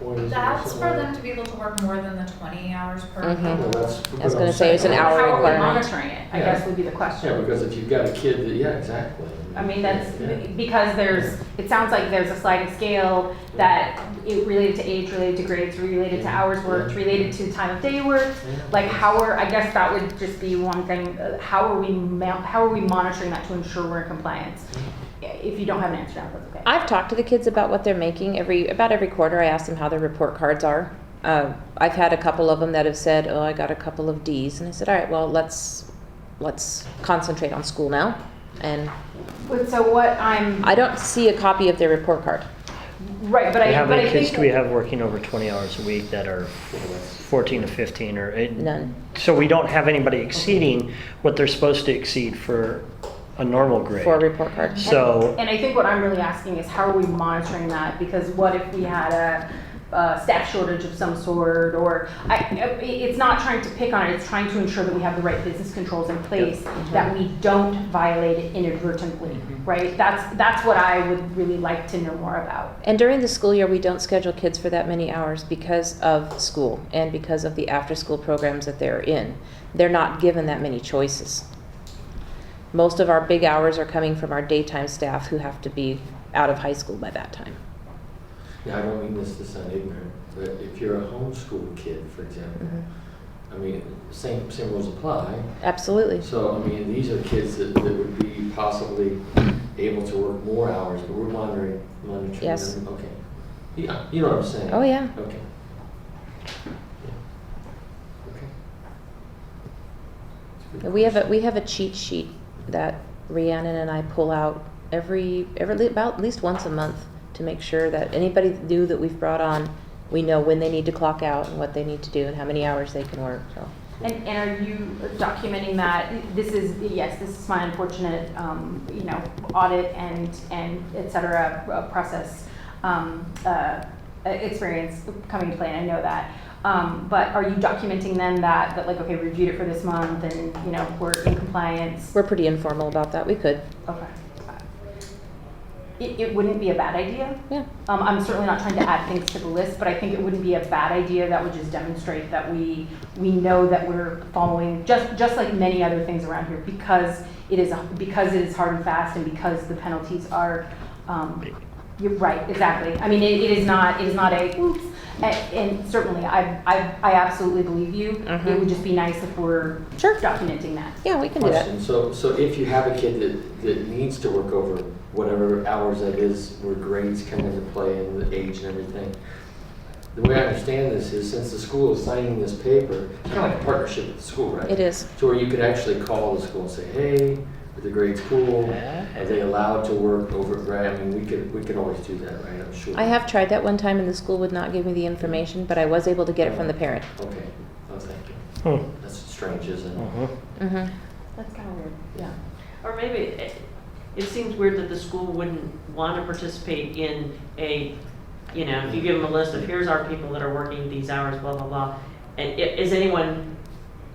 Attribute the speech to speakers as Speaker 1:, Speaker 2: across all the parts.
Speaker 1: employees. or
Speaker 2: That's for
Speaker 1: something.
Speaker 2: them to be able to work more than the twenty hours per
Speaker 3: Mhm.
Speaker 2: week.
Speaker 1: Yeah, that's.
Speaker 3: I was gonna say it's an hour
Speaker 4: How are we
Speaker 3: requirement.
Speaker 4: monitoring it, I
Speaker 1: Yeah.
Speaker 4: guess would be the question.
Speaker 1: Yeah, because if you've got a kid, that- yeah, exactly.
Speaker 4: I mean, that's,
Speaker 1: Yeah.
Speaker 4: because there's, it sounds like there's a sliding scale that it related to age, related to grades, related to hours worked, related to time of day worked. Like how are, I guess that would just be one thing, uh, how are we, ma- how are we monitoring that to ensure we're in compliance?
Speaker 1: Mm-hmm.
Speaker 4: If you don't have an answer now, that's okay.
Speaker 3: I've talked to the kids about what they're making every about every quarter. I ask them how their report cards are. Uh, I've had a couple of them that have said, "Oh, I got a couple of D's," and I said, "All right, well, let's let's concentrate on school now." And
Speaker 4: But so what I'm,
Speaker 3: I don't see a copy of their report card.
Speaker 4: right, but I,
Speaker 5: How
Speaker 4: but I
Speaker 5: many
Speaker 4: think.
Speaker 5: kids do we have working over 20 hours a week that are 14 to 15 or? it-
Speaker 3: None.
Speaker 5: So we don't have anybody exceeding what they're supposed to exceed for a normal grade.
Speaker 3: for a report card.
Speaker 5: So,
Speaker 4: And I think what I'm really asking is how are we monitoring that? Because what if we had a, a staff shortage of some sort or, I, it- it's not trying to pick on it, it's trying to ensure that we have the right business controls in place, that we don't violate it inadvertently, right? That's, that's what I would really like to know more about.
Speaker 3: And during the school year, we don't schedule kids for that many hours because of school and because of the after-school programs that they're in. They're not given that many choices. Most of our big hours are coming from our daytime staff who have to be out of high school by that time.
Speaker 1: Yeah, I don't mean this to sound ignorant, but if you're a homeschool kid, for example, I mean, same, same rules apply.
Speaker 3: Absolutely.
Speaker 1: So, I mean, these are kids that, that would be possibly able to work more hours, but we're monitoring, monitoring
Speaker 3: Yes.
Speaker 1: them, okay. Yeah, you know what I'm saying?
Speaker 3: Oh, yeah.
Speaker 1: Okay. Yeah. Okay. That's a good
Speaker 3: We have a,
Speaker 1: question.
Speaker 3: we have a cheat sheet that Rhiannon and I pull out every, every, about at least once a month to make sure that anybody new that we've brought on, we know when they need to clock out and what they need to do and how many hours they can work, so.
Speaker 4: And, and are you documenting that? This is, yes, this is my unfortunate, um, you know, audit and, and et cetera, uh, process, um, uh, experience coming to play, and I know that. Um, but are you documenting then that, that like, okay, we reviewed it for this month and, you know, we're in compliance?
Speaker 3: We're pretty informal about that. We could,
Speaker 4: Okay. It, it wouldn't be a bad idea.
Speaker 3: yeah.
Speaker 4: Um, I'm certainly not trying to add things to the list, but I think it wouldn't be a bad idea that would just demonstrate that we, we know that we're following, just, just like many other things around here, because it is, a- because it is hard and fast and because the penalties are, um, you're right, exactly. I mean, it, it is not, it is not a, oops, and, and certainly, I, I, I absolutely believe you. It
Speaker 5: Mm-hmm.
Speaker 3: Mhm.
Speaker 4: would just be nice if we're
Speaker 3: Sure.
Speaker 4: documenting that.
Speaker 3: Yeah, we can do that.
Speaker 1: Question, so, so if you have a kid that, that needs to work over whatever hours that is, where grades come into play and the age and everything, the way I understand this is since the school is signing this paper, it's kind of like a partnership with the school, right?
Speaker 3: It is.
Speaker 1: So where you could actually call the school and say, hey, are the grades
Speaker 5: hmm,
Speaker 1: cool? Are they allowed to work over, right? I mean, we could, we could always do that, right? I'm sure.
Speaker 3: I have tried that one time and the school would not give me the information, but I was able to get it from the parent.
Speaker 1: Okay, oh, thank you.
Speaker 5: hmm,
Speaker 1: That's strange, isn't it?
Speaker 5: mhm.
Speaker 3: Mm-hmm.
Speaker 4: That's kind of weird, yeah.
Speaker 6: Or maybe, it- it seems weird that the school wouldn't want to participate in a, you know, if you give them a list of, here's our people that are working these hours, blah, blah, blah. And i- is anyone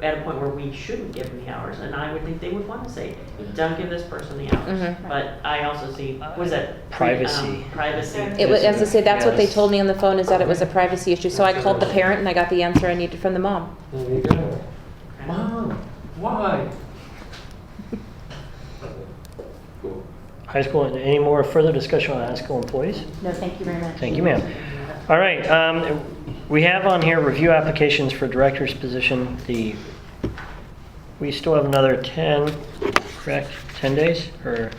Speaker 6: at a point where we shouldn't give them the hours? And I would think they would want to say, don't give this person the hours.
Speaker 3: Mhm.
Speaker 6: But I also see, was that?
Speaker 5: Privacy.
Speaker 6: Privacy.
Speaker 3: It was, as I say, that's what they
Speaker 5: Yes.
Speaker 3: told me on the phone is that it was a privacy issue. So I called the parent and I got the answer I needed from the mom.
Speaker 1: There you go.
Speaker 6: Okay.
Speaker 1: Mom, why? Cool.
Speaker 5: High school, any more further discussion on high school employees?
Speaker 4: No, thank you very much.
Speaker 5: Thank you, ma'am. All right, um, we have on here review applications for director's position. The, we still have another 10, correct? 10 days or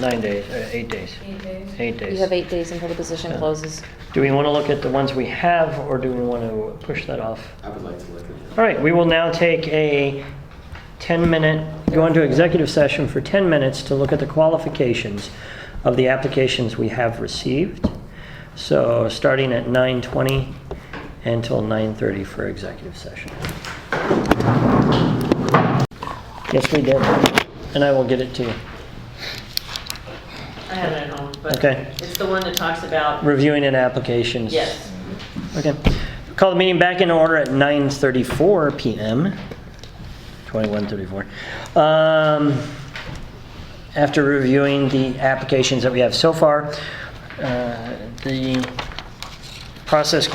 Speaker 5: nine days, uh, eight days?
Speaker 2: Eight days.
Speaker 5: Eight days.
Speaker 3: You have eight days until the position
Speaker 5: Yeah.
Speaker 3: closes.
Speaker 5: Do we want to look at the ones we have or do we want to push that off?
Speaker 1: I would like to look at
Speaker 5: All right, we will now take a 10-minute, go into executive session for 10 minutes to look at the qualifications of the applications we have received. So starting at 9:20 until 9:30 for executive session. Yes, we did, and I will get it to you.
Speaker 6: I have it at home, but
Speaker 5: Okay.
Speaker 6: it's the one that talks about,
Speaker 5: Reviewing an applications.
Speaker 6: yes.
Speaker 5: Okay. Call the meeting back in order at 9:34 PM. 21:34. Um, After reviewing the applications that we have so far, uh, the process